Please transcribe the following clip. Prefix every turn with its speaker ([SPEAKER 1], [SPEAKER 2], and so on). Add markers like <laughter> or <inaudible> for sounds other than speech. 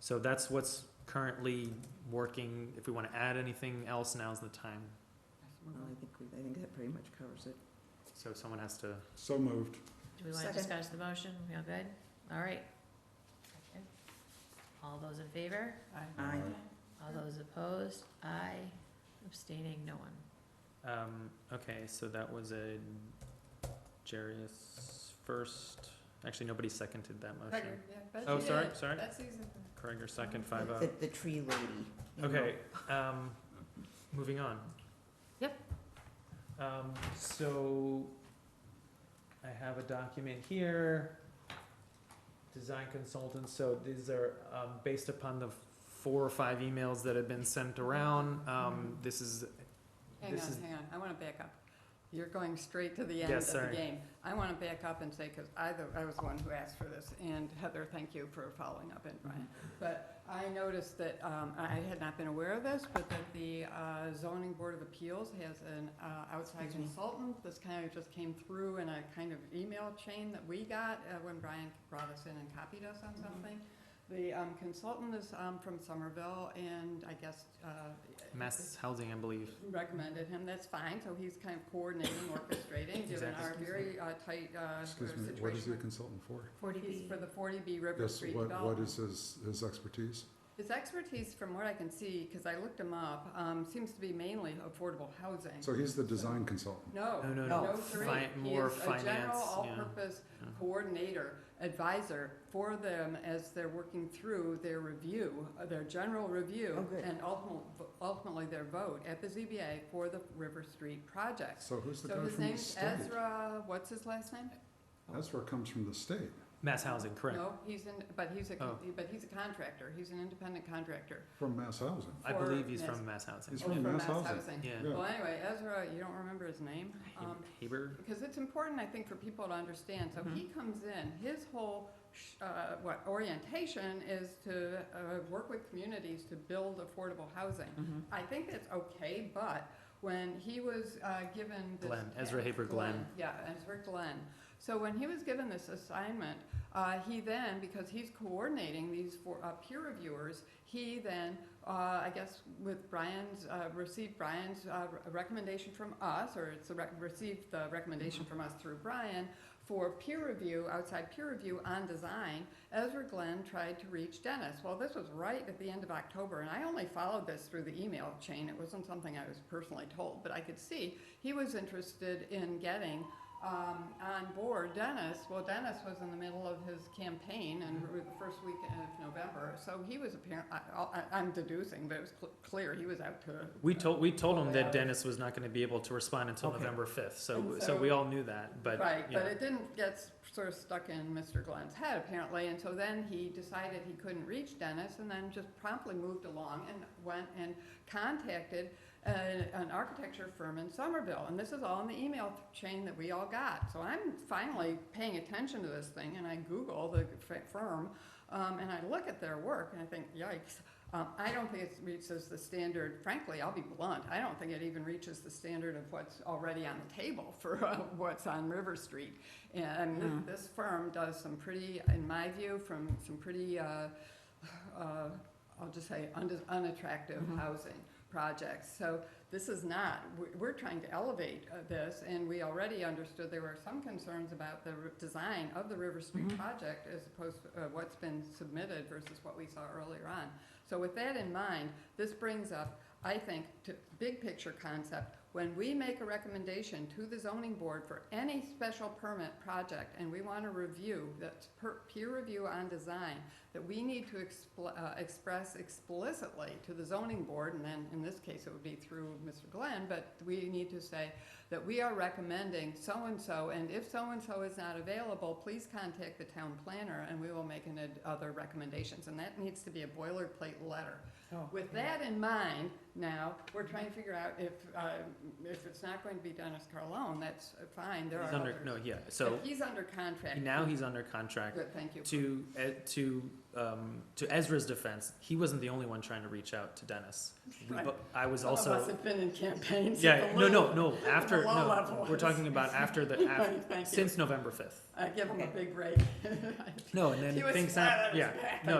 [SPEAKER 1] So that's what's currently working. If we want to add anything else, now's the time.
[SPEAKER 2] Well, I think, we- I think that pretty much covers it.
[SPEAKER 1] So someone has to,
[SPEAKER 3] So moved.
[SPEAKER 4] Do we want to
[SPEAKER 2] Second.
[SPEAKER 4] discuss the motion? We all good? All right. Okay. All those in favor?
[SPEAKER 2] Aye.
[SPEAKER 4] All those opposed? Aye. Abstaining, no one.
[SPEAKER 1] um, okay, so that was a Jarius first. Actually, nobody seconded that motion. Oh, sorry, sorry. Kreger second, five oh.
[SPEAKER 2] The, the tree lady. you know.
[SPEAKER 1] Okay, um, moving on.
[SPEAKER 4] Yep.
[SPEAKER 1] Um, so I have a document here, design consultants, so these are, um, based upon the four or five emails that have been sent around, um, this is,
[SPEAKER 5] Hang on,
[SPEAKER 1] this is,
[SPEAKER 5] hang on, I wanna back up. You're going straight to the end
[SPEAKER 1] Yeah,
[SPEAKER 5] of the
[SPEAKER 1] sorry.
[SPEAKER 5] game. I wanna back up and say, cause I, the- I was the one who asked for this, and Heather, thank you for following up and Brian. But I noticed that, um, I had not been aware of this, but that the uh, zoning board of appeals has an uh, outside
[SPEAKER 2] Excuse me.
[SPEAKER 5] consultant. This kind of just came through in a kind of email chain that we got uh, when Brian brought us in and copied us on
[SPEAKER 2] Mhm.
[SPEAKER 5] something. The um, consultant is um, from Somerville, and I guess. uh,
[SPEAKER 1] mass housing, I believe.
[SPEAKER 5] recommended him, that's fine, so he's kind of coordinating, orchestrating, given
[SPEAKER 1] Exactly.
[SPEAKER 5] our very uh, tight uh,
[SPEAKER 3] Excuse
[SPEAKER 5] situation.
[SPEAKER 3] me, what is the
[SPEAKER 5] with-
[SPEAKER 3] consultant for?
[SPEAKER 4] Forty
[SPEAKER 5] He's
[SPEAKER 4] B.
[SPEAKER 5] for the forty B River
[SPEAKER 3] Yes,
[SPEAKER 5] Street
[SPEAKER 3] what, what
[SPEAKER 5] development.
[SPEAKER 3] is his, his expertise?
[SPEAKER 5] His expertise, from what I can see, because I looked him up, um, seems to be mainly affordable housing.
[SPEAKER 3] So he's the design consultant.
[SPEAKER 5] No,
[SPEAKER 1] No, no,
[SPEAKER 2] no.
[SPEAKER 5] no three,
[SPEAKER 1] Fi-
[SPEAKER 5] he
[SPEAKER 1] more
[SPEAKER 5] is a
[SPEAKER 1] finance,
[SPEAKER 5] general
[SPEAKER 1] yeah.
[SPEAKER 5] all-purpose
[SPEAKER 1] Yeah.
[SPEAKER 5] coordinator, advisor for them as they're working through their review, uh, their general
[SPEAKER 2] Oh,
[SPEAKER 5] review,
[SPEAKER 2] good.
[SPEAKER 5] and ultimately, ultimately their vote at the ZBA for the River Street project.
[SPEAKER 3] So who's the
[SPEAKER 5] So
[SPEAKER 3] guy
[SPEAKER 5] his
[SPEAKER 3] from the
[SPEAKER 5] name's
[SPEAKER 3] state?
[SPEAKER 5] Ezra, what's his last name?
[SPEAKER 3] Ezra comes from the state.
[SPEAKER 1] Mass housing, correct.
[SPEAKER 5] No, he's in, but he's a,
[SPEAKER 1] Oh.
[SPEAKER 5] but he's a contractor, he's an independent contractor.
[SPEAKER 3] From Mass Housing.
[SPEAKER 1] I
[SPEAKER 5] for
[SPEAKER 1] believe he's
[SPEAKER 5] Mass-
[SPEAKER 1] from mass housing.
[SPEAKER 3] He's
[SPEAKER 5] Oh,
[SPEAKER 3] from Mass Housing.
[SPEAKER 1] Yeah.
[SPEAKER 3] Yeah.
[SPEAKER 5] Well, anyway, Ezra, you don't remember his name, um,
[SPEAKER 1] Haber,
[SPEAKER 5] because it's important, I think, for people to understand, so he comes in, his whole, sh- uh, what, orientation is to, uh, work with communities to build affordable housing.
[SPEAKER 2] Mhm.
[SPEAKER 5] I think that's okay, but when he was uh, given this.
[SPEAKER 1] Glenn, Ezra Haber Glenn.
[SPEAKER 5] Yeah, Ezra Glenn. So when he was given this assignment, uh, he then, because he's coordinating these for uh, peer reviewers, he then, uh, I guess, with Brian's, uh, received Brian's uh, re- recommendation from us, or it's a rec- received the recommendation
[SPEAKER 1] Mm-hmm.
[SPEAKER 5] from us through Brian for peer review, outside peer review on design, Ezra Glenn tried to reach Dennis. Well, this was right at the end of October, and I only followed this through the email chain. It wasn't something I was personally told, but I could see he was interested in getting um, on board Dennis. Well, Dennis was in the middle of his campaign and the first week of November, so he was apparent. I, I, I'm deducing, but it was cl- clear he was out to.
[SPEAKER 1] We told, we told him
[SPEAKER 5] Well, yeah.
[SPEAKER 1] that Dennis was not gonna be able to respond until
[SPEAKER 2] Okay.
[SPEAKER 1] November fifth, so,
[SPEAKER 5] And
[SPEAKER 1] so
[SPEAKER 5] so-
[SPEAKER 1] we all knew that, but,
[SPEAKER 5] Right,
[SPEAKER 1] yeah.
[SPEAKER 5] but it didn't get s- sort of stuck in Mr. Glenn's head apparently, and so then he decided he couldn't reach Dennis and then just promptly moved along and went and contacted an, an architecture firm in Somerville, and this is all in the email th- chain that we all got. So I'm finally paying attention to this thing, and I Google the f- firm, um, and I look at their work, and I think, yikes. Um, I don't think it reaches the standard, frankly, I'll be blunt, I don't think it even reaches the standard of what's already on the table for uh, what's on River Street. And th- this firm does some pretty, in my view, from some pretty, uh, uh, I'll just say unde- unattractive housing projects. So this is not, we- we're trying to elevate uh, this, and we already understood there were some concerns about the r- design of the River Street project as opposed to uh, what's been submitted versus what we saw earlier on. So with that in mind, this brings up, I think, to big picture concept. When we make a recommendation to the zoning board for any special permit project, and we want to review, that's per, peer review on design, that we need to expl- uh, express explicitly to the zoning board, and then in this case, it would be through Mr. Glenn, but we need to say that we are recommending so-and-so, and if so-and-so is not available, please contact the town planner, and we will make an ad- other recommendations, and that needs to be a boilerplate letter. With that in mind, now, we're trying to figure out if, uh, if it's not going to be Dennis Carlone, that's fine, there are
[SPEAKER 1] He's under, no,
[SPEAKER 5] others.
[SPEAKER 1] yeah, so
[SPEAKER 5] But he's under contract.
[SPEAKER 1] now he's under contract
[SPEAKER 5] Good, thank you.
[SPEAKER 1] to, Ed- to, um, to Ezra's defense, he wasn't the only one trying to reach out to Dennis. We
[SPEAKER 5] Right.
[SPEAKER 1] bo- I was
[SPEAKER 5] Some of us
[SPEAKER 1] also,
[SPEAKER 5] have been in campaigns.
[SPEAKER 1] yeah,
[SPEAKER 5] at the
[SPEAKER 1] no, no,
[SPEAKER 5] low-
[SPEAKER 1] no, after,
[SPEAKER 5] low
[SPEAKER 1] no,
[SPEAKER 5] level
[SPEAKER 1] we're
[SPEAKER 5] is-
[SPEAKER 1] talking about after the, af-
[SPEAKER 5] <laughs> Thank you.
[SPEAKER 1] since November fifth.
[SPEAKER 5] I give him a
[SPEAKER 2] Okay.
[SPEAKER 5] big break. <laughs>
[SPEAKER 1] No, and
[SPEAKER 5] He
[SPEAKER 1] then
[SPEAKER 5] was
[SPEAKER 1] things
[SPEAKER 5] flat
[SPEAKER 1] hap-
[SPEAKER 5] on his
[SPEAKER 1] yeah,
[SPEAKER 5] back.
[SPEAKER 1] no,